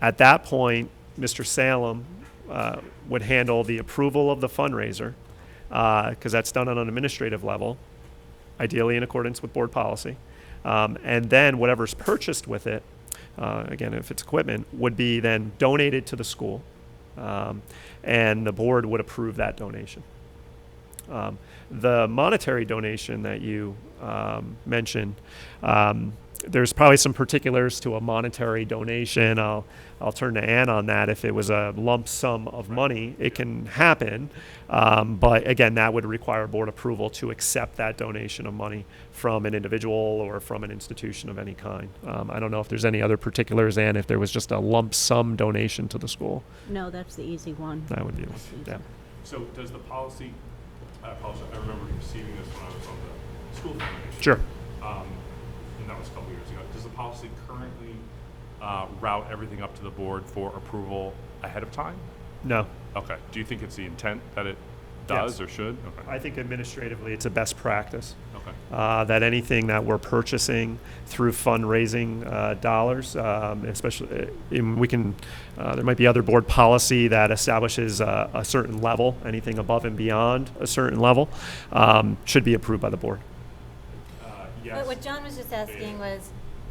At that point, Mr. Salem uh, would handle the approval of the fundraiser, because that's done on an administrative level, ideally in accordance with board policy. Um, And then whatever's purchased with it, uh, again, if it's equipment, would be then donated to the school. Um, And the board would approve that donation. Um, the monetary donation that you um, mentioned, um, there's probably some particulars to a monetary donation. I'll I'll turn to Ann on that. If it was a lump sum of money, it can happen, um, but again, that would require board approval to accept that donation of money from an individual or from an institution of any kind. Um, I don't know if there's any other particulars, Ann. If there was just a lump sum donation to the school, No, that's the easy one. that would be one. Yeah. So does the policy, I apologize, I remember receiving this when I was on the school foundation. Sure. Um, and that was a couple years ago. Does the policy currently, uh, route everything up to the board for approval ahead of time? No. Okay, do you think it's the intent that it Yes. does or should? I Okay, think administratively, it's a best practice. okay, uh, that anything that we're purchasing through fundraising uh, dollars, um, especially, uh, in, we can, uh, there might be other board policy that establishes uh, a certain level, anything above and beyond a certain level, um, should be approved by the board. uh, But yes. what John was just asking was,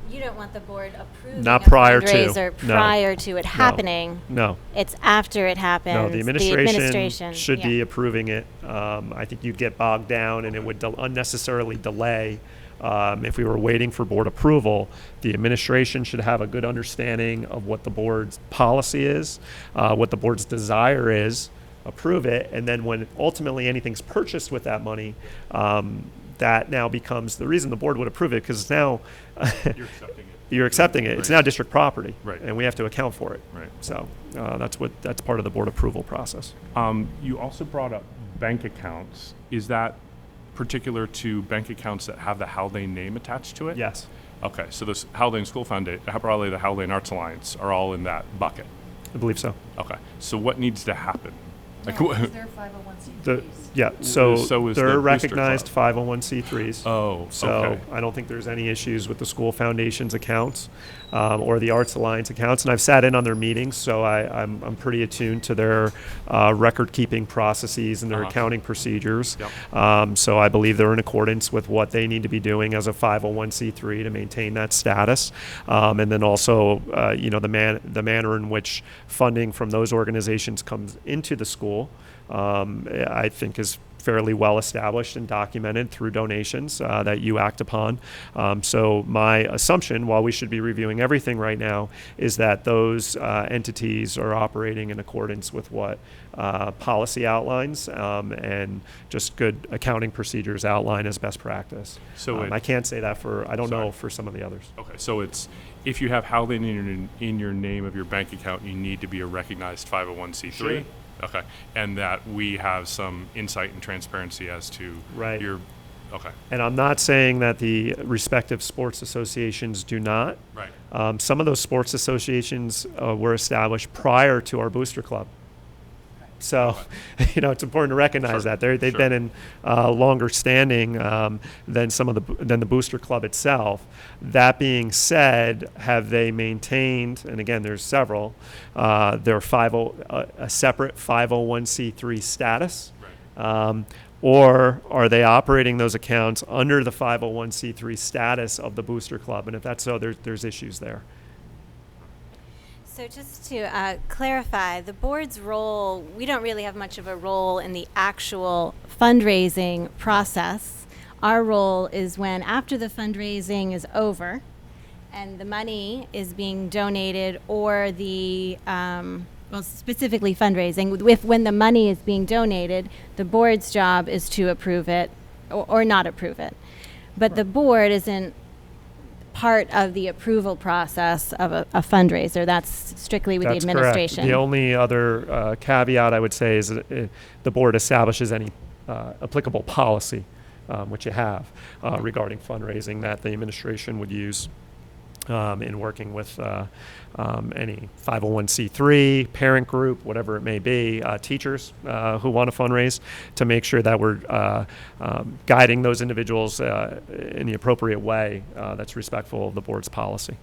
you don't want the board approving Not a prior to, fundraiser no. prior to it happening. No, It's after it happens. no, the administration administration, should yeah. be approving it. Um, I think you'd get bogged down and it would del- unnecessarily delay. Um, if we were waiting for board approval, the administration should have a good understanding of what the board's policy is, uh, what the board's desire is, approve it, and then when ultimately anything's purchased with that money, um, that now becomes the reason the board would approve it because now You're accepting it. you're accepting it. It's Right. now district property, Right. and we have to account for it. Right. So uh, that's what that's part of the board approval process. Um, you also brought up bank accounts. Is that particular to bank accounts that have the Haldane name attached to it? Yes. Okay, so this Haldane School Foundation, probably the Haldane Arts Alliance are all in that bucket. I believe so. Okay, so what needs to happen? Like, No, wha- because they're The, 501c3s. yeah, so, so is they're their booster recognized club. 501c3s. Oh, So okay. I don't think there's any issues with the school foundation's accounts um, or the Arts Alliance accounts. And I've sat in on their meetings, so I, I'm, I'm pretty attuned to their uh, record keeping processes and their Uh-huh. accounting procedures. Yep. Um, so I believe they're in accordance with what they need to be doing as a 501c3 to maintain that status. Um, and then also, uh, you know, the, man, the manner in which funding from those organizations comes into the school, um, I think is fairly well established and documented through donations uh, that you act upon. Um, so my assumption, while we should be reviewing everything right now, is that those uh, entities are operating in accordance with what uh, policy outlines um, and just good accounting procedures outline as best practice. So Um, it- I can't say that for I don't know Sorry. for some of the others. Okay, so it's, if you have Haldane in your, in your name of your bank account, you need to be a recognized 501c3? Sure. Okay, and that we have some insight and transparency as to Right. your, okay, And I'm not saying that the respective sports associations do not. right. Um, some of those sports associations uh, were established prior to our booster club. So, you know, it's important to recognize Sure, that They're, they've sure. been in uh, longer standing um, than some of the bo- than the booster club itself. That being said, have they maintained? And again, there's several. Uh, their 50 uh, a separate 501c3 status. Right. Um, or are they operating those accounts under the 501c3 status of the booster club? And if that's so, there's, there's issues there. So just to uh, clarify, the board's role, we don't really have much of a role in the actual fundraising process. Our role is when, after the fundraising is over and the money is being donated or the, um, well, specifically fundraising, if, when the money is being donated, the board's job is to approve it or, or not approve it. But the board isn't part of the approval process of a, a fundraiser. That's strictly with That's the correct. administration. The only other uh, caveat I would say is that, uh, the board establishes any uh, applicable policy, um, which you have, uh, regarding fundraising that the administration would use um, in working with uh, um, any 501c3, parent group, whatever it may be, uh, teachers uh, who want to fundraise, to make sure that we're uh, um, guiding those individuals uh, in the appropriate way uh, that's respectful of the board's policy.